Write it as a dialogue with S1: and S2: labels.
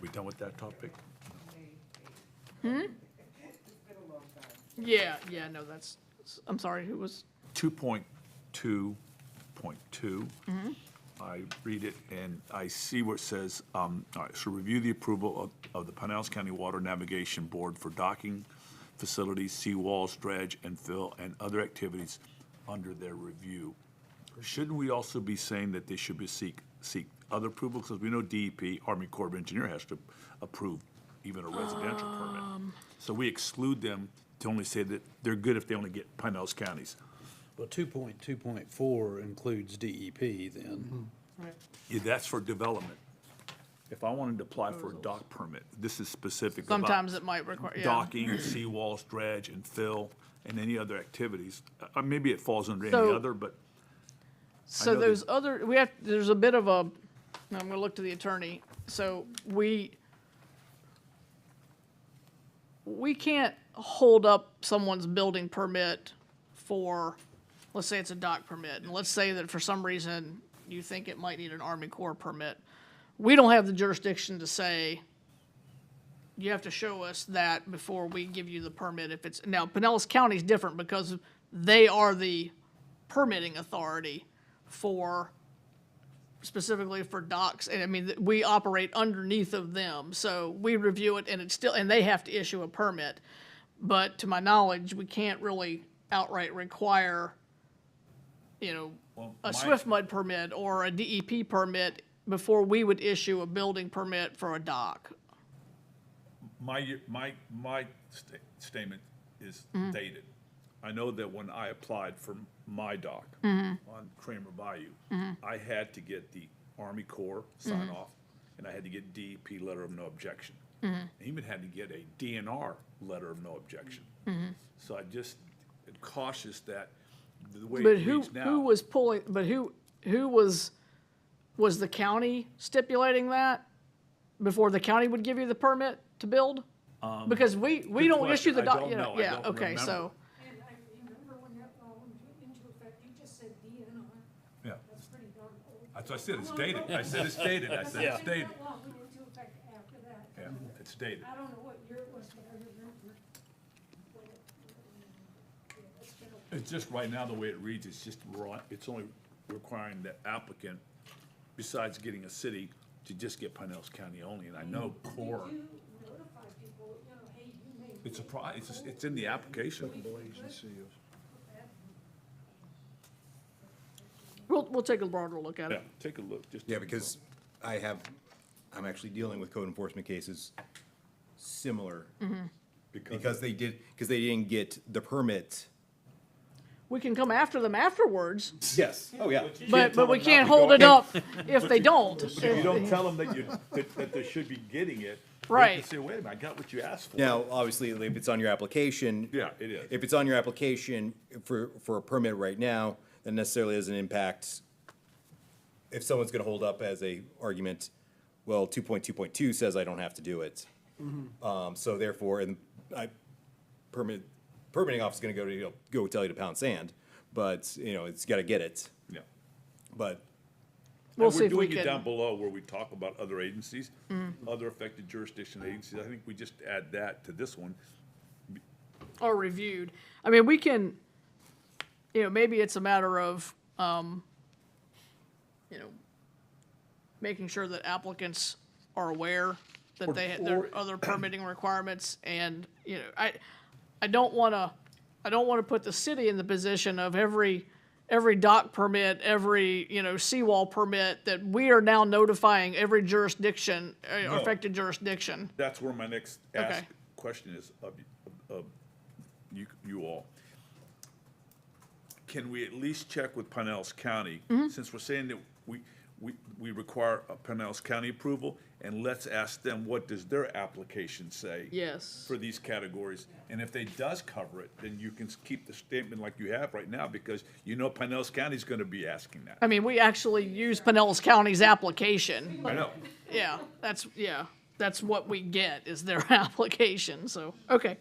S1: we done with that topic?
S2: Yeah, yeah, no, that's, I'm sorry, who was,
S1: 2.2.2. I read it and I see where it says, um, all right, so review the approval of, of the Pinellas County Water Navigation Board for docking facilities, seawalls, dredge and fill, and other activities under their review. Shouldn't we also be saying that they should be seek, seek other approval? Because we know DEP, Army Corps of Engineer, has to approve even a residential
S2: Um.
S1: permit. So we exclude them to only say that they're good if they only get Pinellas counties.
S3: Well, two point two point four includes DEP then.
S2: right,
S1: Yeah, that's for development. If I wanted to apply for a dock permit, this is specific about
S2: sometimes it might require, yeah.
S1: docking, seawalls, dredge, and fill, and any other activities. Uh, maybe it falls under any
S2: So-
S1: other, but know
S2: So
S1: that-
S2: those other, we have, there's a bit of a, I'm gonna look to the attorney, so we, we can't hold up someone's building permit for, let's say it's a dock permit, and let's say that for some reason you think it might need an Army Corps permit. We don't have the jurisdiction to say, you have to show us that before we give you the permit if it's, now Pinellas County's different because they are the permitting authority for, specifically for docks, and I mean, th- we operate underneath of them, so we review it and it's still, and they have to issue a permit. But to my knowledge, we can't really outright require, you know,
S1: Well, my-
S2: a swift mud permit or a DEP permit before we would issue a building permit for a dock.
S1: my, my, my sta- statement is dated. I know that when I applied for my dock on Kramer Bayou, I had to get the Army Corps sign off, and I had to get DEP letter of no objection. I Even had to get a DNR letter of no objection. So I just cautious that the way
S2: But
S1: it
S2: who,
S1: reads now.
S2: who was pulling, but who, who was, was the county stipulating that before the county would give you the permit to build? Because we, we
S1: Um, good
S2: don't
S1: question.
S2: issue the
S1: I
S2: doc,
S1: don't
S2: you
S1: know.
S2: know,
S1: I
S2: yeah,
S1: don't
S2: okay,
S1: remember.
S2: so,
S4: And I remember when that law went into effect, you just said DNR,
S1: Yeah,
S4: that's pretty darn old.
S1: that's what I said, it's dated. I said it's dated. I said it's
S4: I think
S1: dated.
S4: That law went into effect after that.
S1: Yeah, it's dated.
S4: I don't know what year it was, but I remember. when it- yeah, that's been a-
S1: It's just right now, the way it reads, it's just raw, it's only requiring the applicant, besides getting a city, to just get Pinellas County only, and I know
S2: Mm.
S1: core.
S4: You notify people, you know, hey, you may.
S1: It's a pro, it's, just- it's in the application.
S2: we'll, we'll take a broader look at
S1: Yeah,
S2: it.
S1: take a look, just.
S5: Yeah, because I have, I'm actually dealing with code enforcement cases similar. Because they did, because they didn't get the permit.
S2: We can come after them afterwards,
S5: Yes, oh yeah.
S2: but, but we can't hold it up if they don't.
S1: If you don't tell them that you, that, that they should be getting it. they can
S2: Right.
S1: Say, wait a minute, I got what you asked for.
S5: Now, obviously, if it's on your application.
S1: Yeah, it is.
S5: If it's on your application for, for a permit right now, that necessarily doesn't impact. If someone's gonna hold up as a argument, well, two point two point two says I don't have to do it. Um, so therefore, and I, permit, permitting office is gonna go to, you know, go tell you to pound sand, but, you know, it's gotta get it,
S1: Yeah.
S5: but
S2: We'll
S1: And
S2: see if we
S1: We're doing it down
S2: can, Mm.
S1: below where we talk about other agencies, other affected jurisdiction agencies. I think we just add that to this one.
S2: or reviewed. I mean, we can, you know, maybe it's a matter of, um, you know, making sure that applicants are aware that they had
S1: or-
S2: their other permitting requirements and, you know, I, I don't wanna, I don't wanna put the city in the position of every, every dock permit, every, you know, seawall permit, that we are now notifying every jurisdiction, uh,
S1: No.
S2: affected jurisdiction.
S1: That's where my next ask
S2: Okay.
S1: question is of, of you, you all. Can we at least check with Pinellas County? Since we're saying that we, we, we require a Pinellas County approval, and let's ask them, what does their application say?
S2: Yes.
S1: For these categories, and if they does cover it, then you can s- keep the statement like you have right now, because you know Pinellas County's gonna be asking that.
S2: I mean, we actually use Pinellas County's application,
S1: I know,
S2: Yeah, that's, yeah, that's what we get is their application, so, okay.